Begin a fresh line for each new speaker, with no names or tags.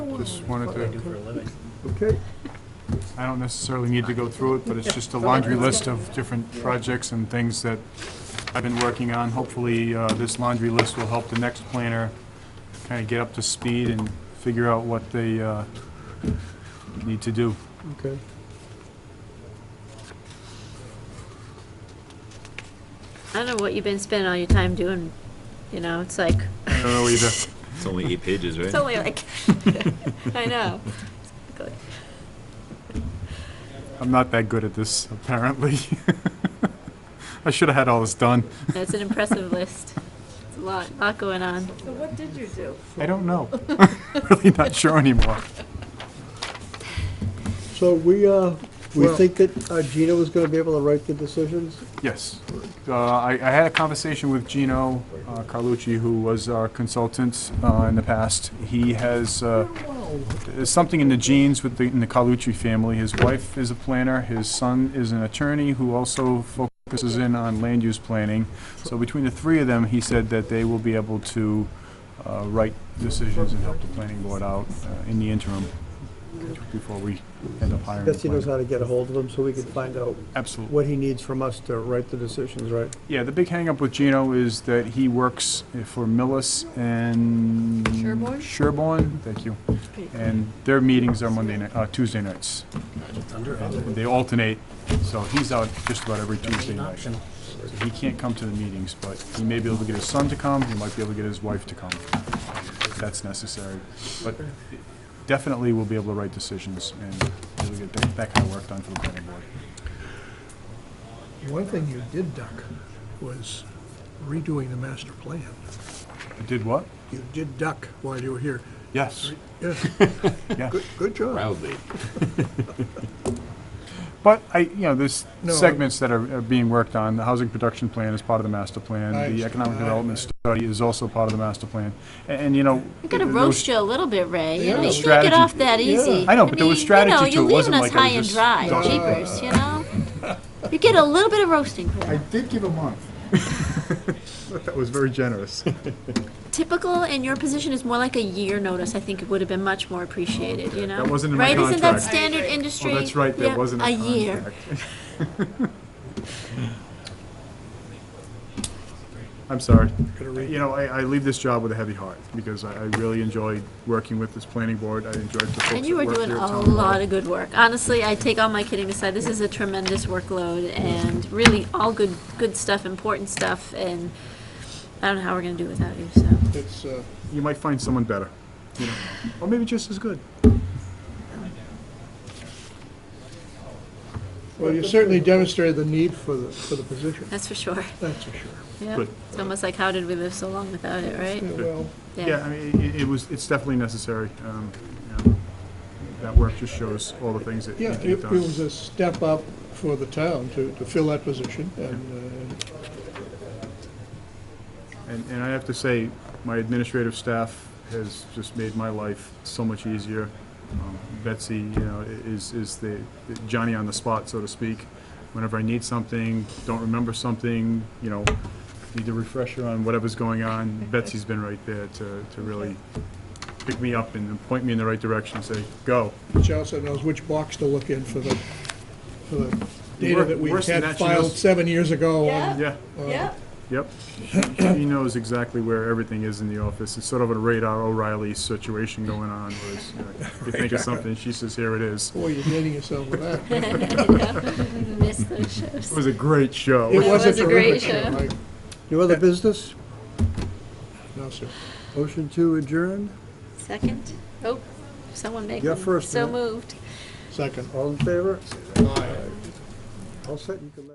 Just wanted
What do I do
to,
for a living?
Okay,
I don't necessarily need to go through it, but it's just a laundry list of different projects and things that I've been working on. Hopefully, uh, this laundry list will help the next planner kind of get up to speed and figure out what they uh, need to do.
okay.
I don't know what you've been spending all your time doing, you know, it's like,
I don't know either.
It's only eight pages, right?
it's only like, I know. Good.
I'm not that good at this, apparently. I should have had all this done.
That's an impressive list. It's a lot, lot going on.
So what did you do?
I don't know. Really not sure anymore.
So we, uh, we
Well-
think that uh, Gina was gonna be able to write the decisions?
Yes. Uh, I I had a conversation with Gino uh, Carlucci, who was our consultant uh, in the past. He has, uh, there's something in the genes with the, in the Carlucci family. His wife is a planner, his son is an attorney who also focuses in on land use planning. So between the three of them, he said that they will be able to uh, write decisions and help the planning board out uh, in the interim before we end up hiring. a
Guess he knows
planner.
how to get a hold of him, so we can find out
Absolutely.
what he needs from us to write the decisions, right?
Yeah, the big hangup with Gino is that he works for Millis and...
Sherborne?
Sherborne, thank you. And their meetings are Monday night, uh, Tuesday nights. They alternate, so he's out just about every Tuesday night. So He can't come to the meetings, but he may be able to get his son to come, he might be able to get his wife to come, if that's necessary. But definitely we'll be able to write decisions and we'll get that- that kind of work done for the planning board.
One thing you did duck was redoing the master plan.
Did what?
You did duck while you were here.
Yes,
Yeah,
yeah.
good, good job.
Proudly.
But I, you know, there's
No, I-
segments that are are being worked on. The housing production plan is part of the master
I
plan. The economic
understand.
development study is also part of the master plan. A- And, you know.
I'm gonna
there
roast
was-
you a little bit, Ray.
Yeah.
You know, you can't
Strategy.
get off that easy.
I know, but there was
mean,
strategy to it.
You
It
know, you're leaving
wasn't
us
like I was
high
just
and dry,
dusting
jeepers, you know? You get a little bit of roasting for that.
did give a month. That was very generous. Oh,
Typical in your position is more like a year notice, I think it would have been much more appreciated, you know?
That wasn't in my
Right, isn't that
contract.
standard
Oh,
industry?
that's right, there
Yeah,
wasn't a
year.
contract. I'm sorry. You know, I, I leave this job with a heavy heart because I, I really enjoyed working with this planning board. I enjoyed the folks
And you
that
were
worked
doing
here at
a
town hall.
lot of good work. Honestly, I take all my kidding aside, this is a tremendous workload and really all good, good stuff, important stuff, and I don't know how we're gonna do without you, so.
It's, uh,
you might find someone better. You know, or maybe just as good.
well, you certainly demonstrated the need for the, for the position,
That's for sure.
that's for sure.
Yeah.
Good.
It's almost like, how did we live so long without it, right?
Yeah, Well,
Yeah, I mean, it, it was, it's definitely necessary. Um, you know, that work just shows all the things that
yeah,
need
it
to
it
get done.
was a step up for the town to, to fill that position, and, uh,
And, and I have to say, my administrative staff has just made my life so much easier. Um, Betsy, you know, i- is, is the the Johnny on the spot, so to speak. Whenever I need something, don't remember something, you know, need a refresher on whatever's going on, Betsy's been right there to, to really pick me up and point me in the right direction and say, go.
she also uh, knows which box to look in for the, for the data
Wor-
that we
worse than that,
had
she
filed
knows-
seven years ago.
Yeah.
Yeah,
Yeah.
yep. She knows exactly where everything is in the office. It's sort of a radar O'Reilly situation going on, where it's, you know, you think of something, she says, here it is.
Boy, you're dating yourself with that.
Miss those shows.
It was a great show.
It was a
was a great
terrific show.
show.
I-
New other business?
No, sir.
Motion to adjourn?
Second? Oh, someone make
Yeah,
one.
first,
So
yeah.
moved.
Second.
All in favor? All set, you can let-